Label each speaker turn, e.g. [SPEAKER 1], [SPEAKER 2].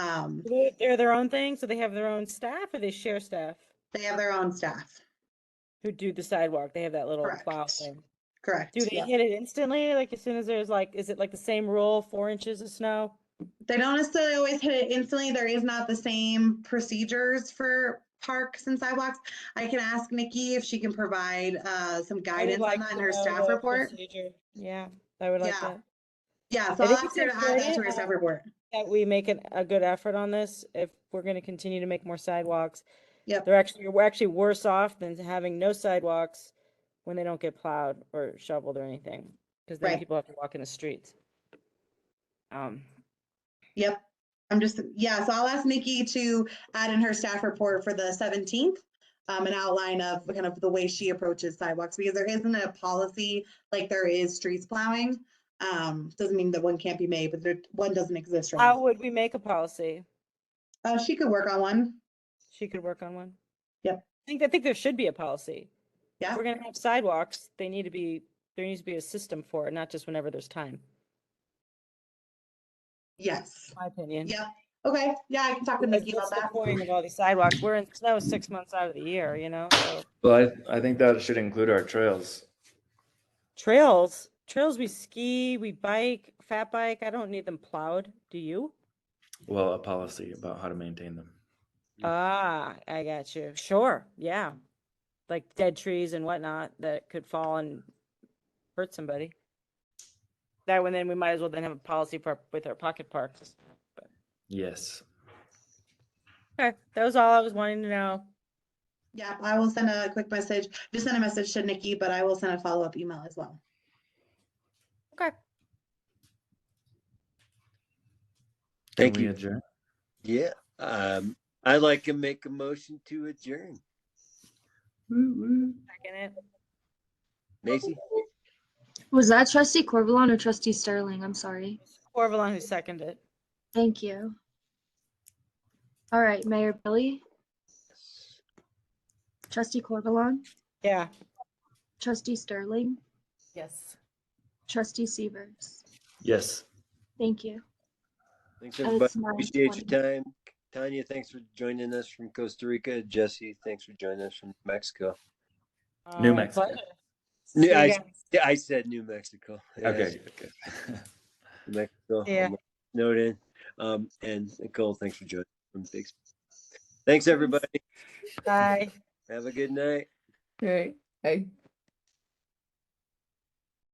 [SPEAKER 1] Um,
[SPEAKER 2] They- They're their own thing, so they have their own staff or they share staff
[SPEAKER 1] they have their own staff,
[SPEAKER 2] who do the sidewalk. They have that little plow
[SPEAKER 1] Correct.
[SPEAKER 2] thing.
[SPEAKER 1] correct?
[SPEAKER 2] Do they
[SPEAKER 1] yeah.
[SPEAKER 2] hit it instantly? Like as soon as there's like, is it like the same rule, four inches of snow?
[SPEAKER 1] They don't necessarily always hit it instantly. There is not the same procedures for parks and sidewalks. I can ask Nikki if she can provide uh, some
[SPEAKER 2] I would
[SPEAKER 1] guidance on
[SPEAKER 2] like
[SPEAKER 1] that in
[SPEAKER 2] to
[SPEAKER 1] her
[SPEAKER 2] know
[SPEAKER 1] staff
[SPEAKER 2] the
[SPEAKER 1] report.
[SPEAKER 2] procedure. Yeah, I would like
[SPEAKER 1] Yeah.
[SPEAKER 2] that.
[SPEAKER 1] Yeah, so
[SPEAKER 2] I
[SPEAKER 1] I'll
[SPEAKER 2] think
[SPEAKER 1] ask
[SPEAKER 2] it's
[SPEAKER 1] her to add that to her
[SPEAKER 2] important,
[SPEAKER 1] staff
[SPEAKER 2] um,
[SPEAKER 1] report.
[SPEAKER 2] That we make an, a good effort on this if we're gonna continue to make more sidewalks.
[SPEAKER 1] Yep.
[SPEAKER 2] They're actually, we're actually worse off than having no sidewalks when they don't get plowed or shoveled or anything. Cause then
[SPEAKER 1] Right.
[SPEAKER 2] people have to walk in the streets. Um,
[SPEAKER 1] Yep. I'm just, yeah, so I'll ask Nikki to add in her staff report for the 17th, um, an outline of kind of the way she approaches sidewalks, because there isn't a policy like there is streets plowing. Um, doesn't mean that one can't be made, but there, one doesn't exist right
[SPEAKER 2] how
[SPEAKER 1] now.
[SPEAKER 2] would we make a policy?
[SPEAKER 1] Uh, she could work on one.
[SPEAKER 2] She could work on one.
[SPEAKER 1] Yep.
[SPEAKER 2] I think, I think there should be a policy. If
[SPEAKER 1] Yeah.
[SPEAKER 2] We're gonna have sidewalks, they need to be, there needs to be a system for it, not just whenever there's time,
[SPEAKER 1] Yes.
[SPEAKER 2] my opinion.
[SPEAKER 1] Yep. Okay. Yeah, I can talk to
[SPEAKER 2] Because
[SPEAKER 1] Nikki
[SPEAKER 2] what's
[SPEAKER 1] about
[SPEAKER 2] the
[SPEAKER 1] that.
[SPEAKER 2] point of all these sidewalks? We're in snow six months out of the year, you know, so.
[SPEAKER 3] Well, I, I think that should include our trails.
[SPEAKER 2] Trails, trails, we ski, we bike, fat bike, I don't need them plowed, do you?
[SPEAKER 3] Well, a policy about how to maintain them.
[SPEAKER 2] Ah, I got you, sure, yeah. Like dead trees and whatnot that could fall and hurt somebody. That one, then we might as well then have a policy for, with our pocket parks.
[SPEAKER 3] Yes.
[SPEAKER 2] Okay, that was all I was wanting to know.
[SPEAKER 1] Yeah, I will send a quick message. Just send a message to Nikki, but I will send a follow-up email as well.
[SPEAKER 2] Okay.
[SPEAKER 3] Can
[SPEAKER 4] Thank
[SPEAKER 3] we
[SPEAKER 4] you.
[SPEAKER 3] adjourn?
[SPEAKER 4] Yeah. Um, I'd like to make a motion to adjourn.
[SPEAKER 2] Second it.
[SPEAKER 4] Macy?
[SPEAKER 5] Was that trustee Corvalon or trustee Sterling? I'm sorry.
[SPEAKER 2] Corvalon who seconded it.
[SPEAKER 5] Thank you. All right, Mayor Billy, trustee Corvalon,
[SPEAKER 2] Yeah.
[SPEAKER 5] trustee Sterling,
[SPEAKER 2] Yes.
[SPEAKER 5] trustee Severs.
[SPEAKER 3] Yes.
[SPEAKER 5] Thank you.
[SPEAKER 4] Thanks,
[SPEAKER 5] And
[SPEAKER 4] everybody.
[SPEAKER 5] it's nine
[SPEAKER 4] Appreciate your
[SPEAKER 5] twenty.
[SPEAKER 4] time. Tanya, thanks for joining us from Costa Rica. Jesse, thanks for joining us from Mexico.
[SPEAKER 3] New Mexico.
[SPEAKER 4] New-
[SPEAKER 2] See you
[SPEAKER 4] I-
[SPEAKER 2] guys.
[SPEAKER 4] Yeah, I said New Mexico. Yeah, I
[SPEAKER 3] Okay.
[SPEAKER 4] said New Mexico.
[SPEAKER 2] Yeah.
[SPEAKER 4] Um, Snowed in. Um, and Nicole, thanks for joining from Big. Sp- Thanks, everybody.
[SPEAKER 2] Bye.
[SPEAKER 4] Have a good night.
[SPEAKER 6] Right. I